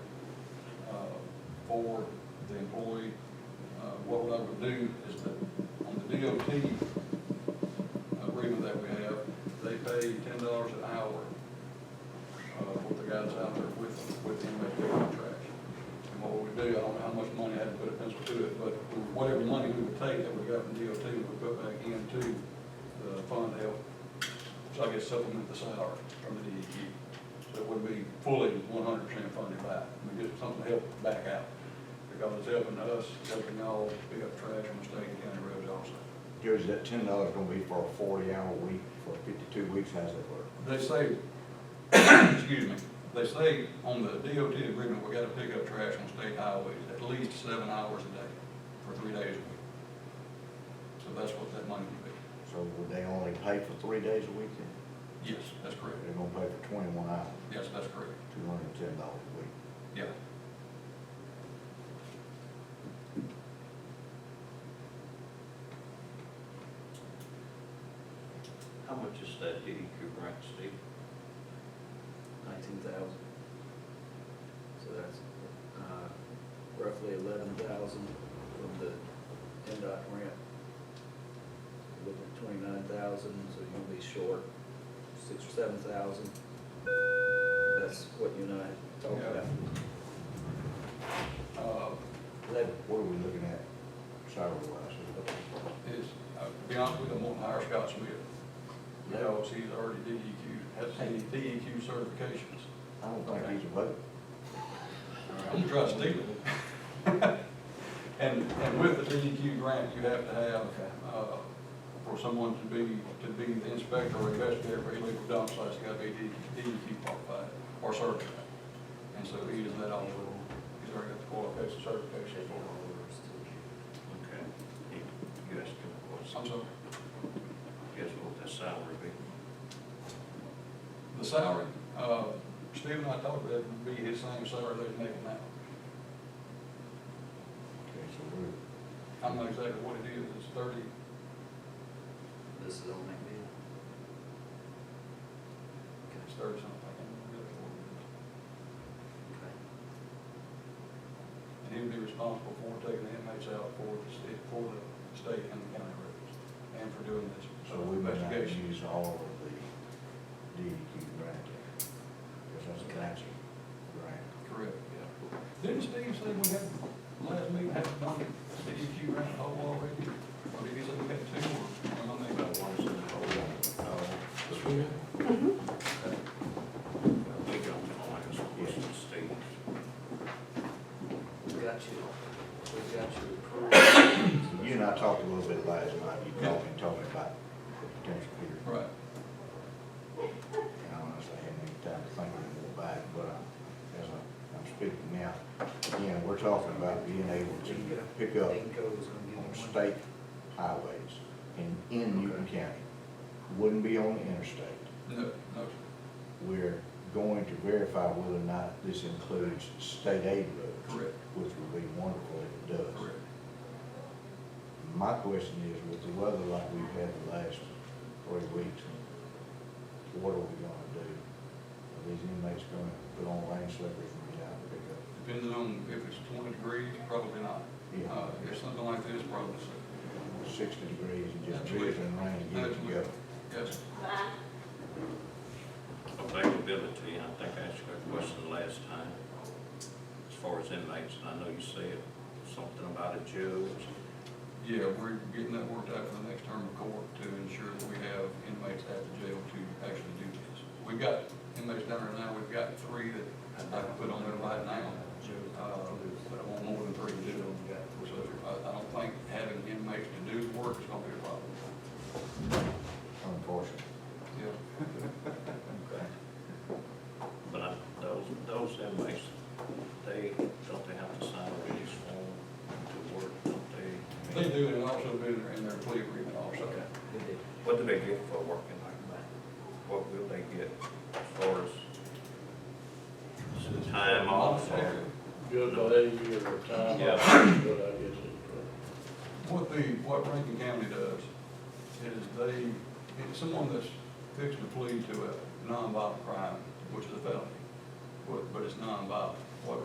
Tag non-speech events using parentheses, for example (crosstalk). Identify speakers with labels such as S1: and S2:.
S1: uh, for the employee. Uh, What I would do is that on the DOT agreement that we have, they pay ten dollars an hour uh, for the guys out there with, with the MSD contracts. And what we do, I don't know how much money I had to put a pencil to it, but whatever money we would take that we got from DOT, we put back into the fund to help, so I guess supplement the salary from the DEQ. So it would be fully one hundred percent funded back, we get something to help back out, because it's helping us, it's helping y'all pick up trash on the state and county roads also.
S2: Joe's that ten dollars gonna be for a forty-hour week, for fifty-two weeks, how's that work?
S1: They say, (coughs) excuse me, they say on the DOT agreement, we gotta pick up trash on state highways at least seven hours a day for three days a week. So that's what that money would be.
S2: So would they only pay for three days a week then?
S1: Yes, that's correct.
S2: They're gonna pay for twenty-one hours,
S1: Yes, that's correct.
S2: two hundred and ten dollars a week.
S1: Yeah.
S3: How much is that DEQ grant, Steve?
S4: nineteen thousand. So that's uh, roughly eleven thousand from the NDOT grant. So Looking at twenty-nine thousand, so you're gonna be short six or seven thousand. That's what you and I talked
S1: Yeah.
S4: about.
S1: Uh,
S4: Eleven,
S2: What are we looking at salary wise?
S1: it's, uh, to be honest with you, I'm gonna hire Scott Smith. Because he's already E DEQ, has the DEQ E certifications.
S2: I don't think he's a vote.
S1: I'm trying to steal it. (laughs) And, and with the DEQ grant, you have to have, uh, for someone to be, to be the inspector or investigator for illegal dump sites, you gotta be E DEQ qualified or certified. And so he does that also, he's already got the qualification certification for
S3: Okay. You asked him
S1: it.
S3: what's,
S1: I'm sorry,
S3: guess what that salary be?
S1: the salary, uh, Steve and I talked about it, would be his same salary that he's making now.
S2: Okay, so we're,
S1: I don't know exactly what it is, it's thirty,
S4: this is on that bid.
S1: it's thirty something. I can't remember exactly what it is. And he would be responsible for taking the inmates out for the state, for the state and the county roads, and for doing this.
S2: so we may not
S1: investigation.
S2: use all of the DEQ grant. Because that's a matching grant.
S1: Correct, yeah. Didn't Steve say we had, last meeting, had done the DEQ grant hole already? Or did he say we had two, or, or nothing about one? Mm-hmm.
S3: We don't know, I guess, what's the state?
S4: We got you, we got you approved.
S2: You and I talked a little bit last night, you called me and told me about the potential here.
S1: Right,
S2: And honestly, I hadn't had time to think of it back, but I- as I- I'm speaking now, again, we're talking about being able to pick up
S4: Danco's gonna give you
S2: on
S4: one.
S2: state highways in, in Newton County. Wouldn't be on the interstate.
S1: no, no,
S2: We're going to verify whether or not this includes state aid roads.
S1: Correct.
S2: Which would be wonderful if it does.
S1: correct.
S2: My question is, with the weather like we've had the last three weeks, what are we gonna do? Are these inmates gonna put on rain slippers and get out and pick up?
S1: Depending on if it's twenty degrees, probably not.
S2: Yeah.
S1: Uh, if something like this, probably, so.
S2: Sixty degrees and just drizzling rain, get it together.
S1: yes.
S3: Availability, and I think I asked you that question last time, as far as inmates, and I know you said something about a judge.
S1: Yeah, we're getting that worked out for the next term of court to ensure that we have inmates at the jail to actually do this. We've got inmates down there now, we've got three that I can put on there right now, uh, but I want more than three to do. So I, I don't think having inmates to do the work is gonna be a problem.
S2: Unfortunately.
S1: Yeah.
S3: But I, those, those inmates, they, don't they have to sign a release form to work, don't they?
S1: They do, and also do in their, in their plea agreement also.
S3: Okay.
S4: We did.
S3: What do they get for working like that? What will they get as far as time off or?
S5: Good value or time,
S3: Yeah.
S5: off, but I guess it's,
S1: What the, what Rankin County does is they, it's someone that's fixing to plead to a nonviolent crime, which is a felony, but, but it's nonviolent.